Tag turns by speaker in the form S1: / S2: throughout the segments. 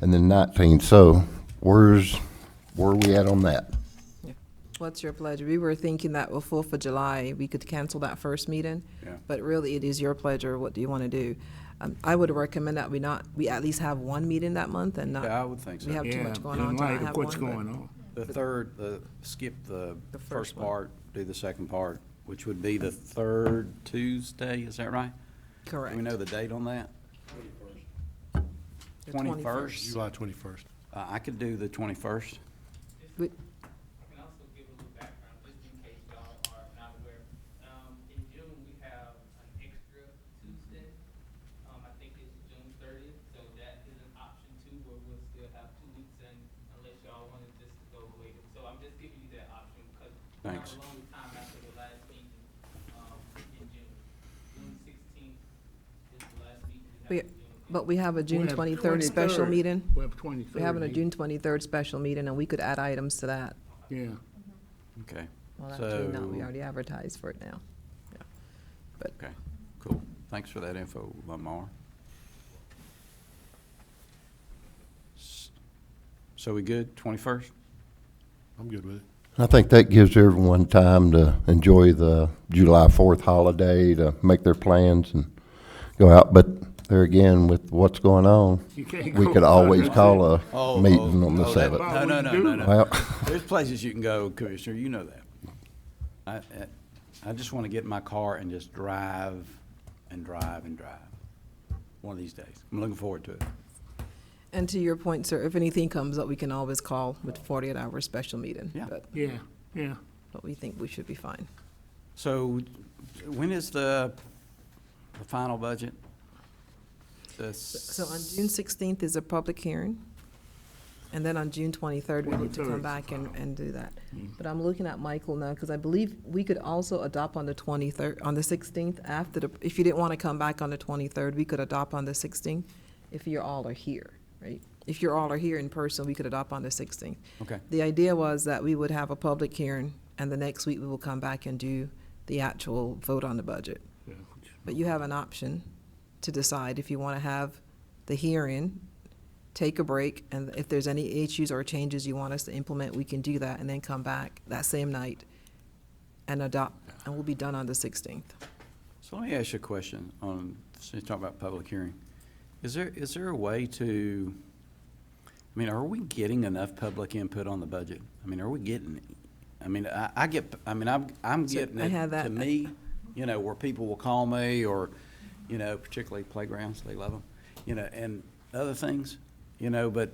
S1: And then nineteen, so where's, where are we at on that?
S2: What's your pledge? We were thinking that before for July, we could cancel that first meeting.
S3: Yeah.
S2: But really, it is your pleasure. What do you want to do? Um, I would recommend that we not, we at least have one meeting that month and not.
S3: Yeah, I would think
S2: We
S3: so.
S2: have too
S4: Yeah,
S2: much going
S4: in
S2: on to
S4: light
S2: not
S4: of
S2: have one.
S4: what's
S2: but-
S4: going on.
S3: The third, the, skip the
S2: The first
S3: first
S2: one.
S3: part, do the second part, which would be the third Tuesday, is that right? Do we know
S2: Correct.
S3: the date on that?
S2: The
S3: 21st.
S2: 21st.
S5: July twenty-first.
S3: Uh, I could do the twenty-first.
S2: We-
S6: I can also give a little background, just in case y'all are not aware. Um, in June, we have an extra Tuesday. Um, I think it's June thirtieth, so that is an option too, where we'll still have two weeks in unless y'all wanted just to go later. So I'm just giving you that option because we have
S3: Thanks.
S6: a long time after the last meeting, um, in June. June sixteenth is the last meeting
S2: We-
S6: we have in June.
S2: But we have a June
S4: We have
S2: twenty-third special
S4: 23rd.
S2: meeting.
S4: We have twenty-third.
S2: We're having a
S4: meeting.
S2: June twenty-third special meeting and we could add items to that.
S4: Yeah.
S3: Okay,
S2: Well, actually, no, we
S3: So-
S2: already advertised for it now.
S3: okay, cool. Thanks for that info, Lamar. S- So we good, twenty-first?
S5: I'm good with it.
S1: I think that gives everyone time to enjoy the July Fourth holiday, to make their plans and go out. But there again, with what's going on,
S4: You can't
S1: we
S4: go
S1: could
S4: out,
S1: always
S4: that's
S1: call
S4: it.
S3: Oh,
S1: a meeting on the seventh.
S3: No, no, no, no, no.
S1: Well,
S3: There's places you can go, Commissioner, you know that. I, I- I just want to get in my car and just drive and drive and drive, one of these days. I'm looking forward to it.
S2: And to your point, sir, if anything comes up, we can always call with forty-eight hour special meeting.
S3: Yeah.
S2: But-
S4: Yeah, yeah.
S2: But we think we should be fine.
S3: So when is the, the final budget? The
S2: So on June sixteenth is a public hearing, and then on June twenty-third, we need to
S4: 23rd
S2: come
S4: is
S2: back and, and do that.
S4: Mm.
S2: But I'm looking at Michael now, because I believe we could also adopt on the twenty-third, on the sixteenth, after the, if you didn't want to come back on the twenty-third, we could adopt on the sixteenth, if you all are here, right? If you all are here in person, we could adopt on the sixteenth.
S3: Okay,
S2: The idea was that we would have a public hearing, and the next week we will come back and do the actual vote on the budget.
S4: Yeah.
S2: But you have an option to decide if you want to have the hearing, take a break, and if there's any issues or changes you want us to implement, we can do that, and then come back that same night and adopt, and we'll be done on the 16th.
S3: so let me ask you a question on, since you talk about public hearing. Is there, is there a way to, I mean, are we getting enough public input on the budget? I mean, are we getting, I mean, I, I get, I mean, I'm, I'm
S2: So,
S3: getting
S2: I
S3: it
S2: had
S3: to
S2: that-
S3: me, you know, where people will call me or, you know, particularly playgrounds, they love them, you know, and other things, you know, but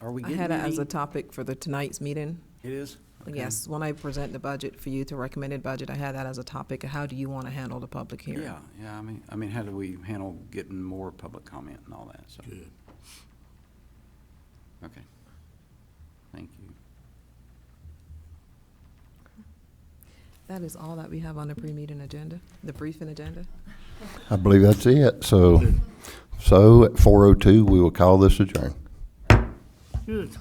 S3: are we
S2: I
S3: getting
S2: had it as a
S3: any?
S2: topic for the tonight's meeting.
S3: It is? Okay.
S2: Yes, when I present the budget for you to recommended budget, I had that as a topic, how do you want to handle the public hearing?
S3: Yeah, yeah, I mean, I mean, how do we handle getting more public comment and all that, so,
S4: Good.
S3: okay. Thank you.
S2: That is all that we have on the pre-meeting agenda, the briefing agenda.
S1: I believe that's it. So, so at four oh two, we will call this adjourned.
S4: Good.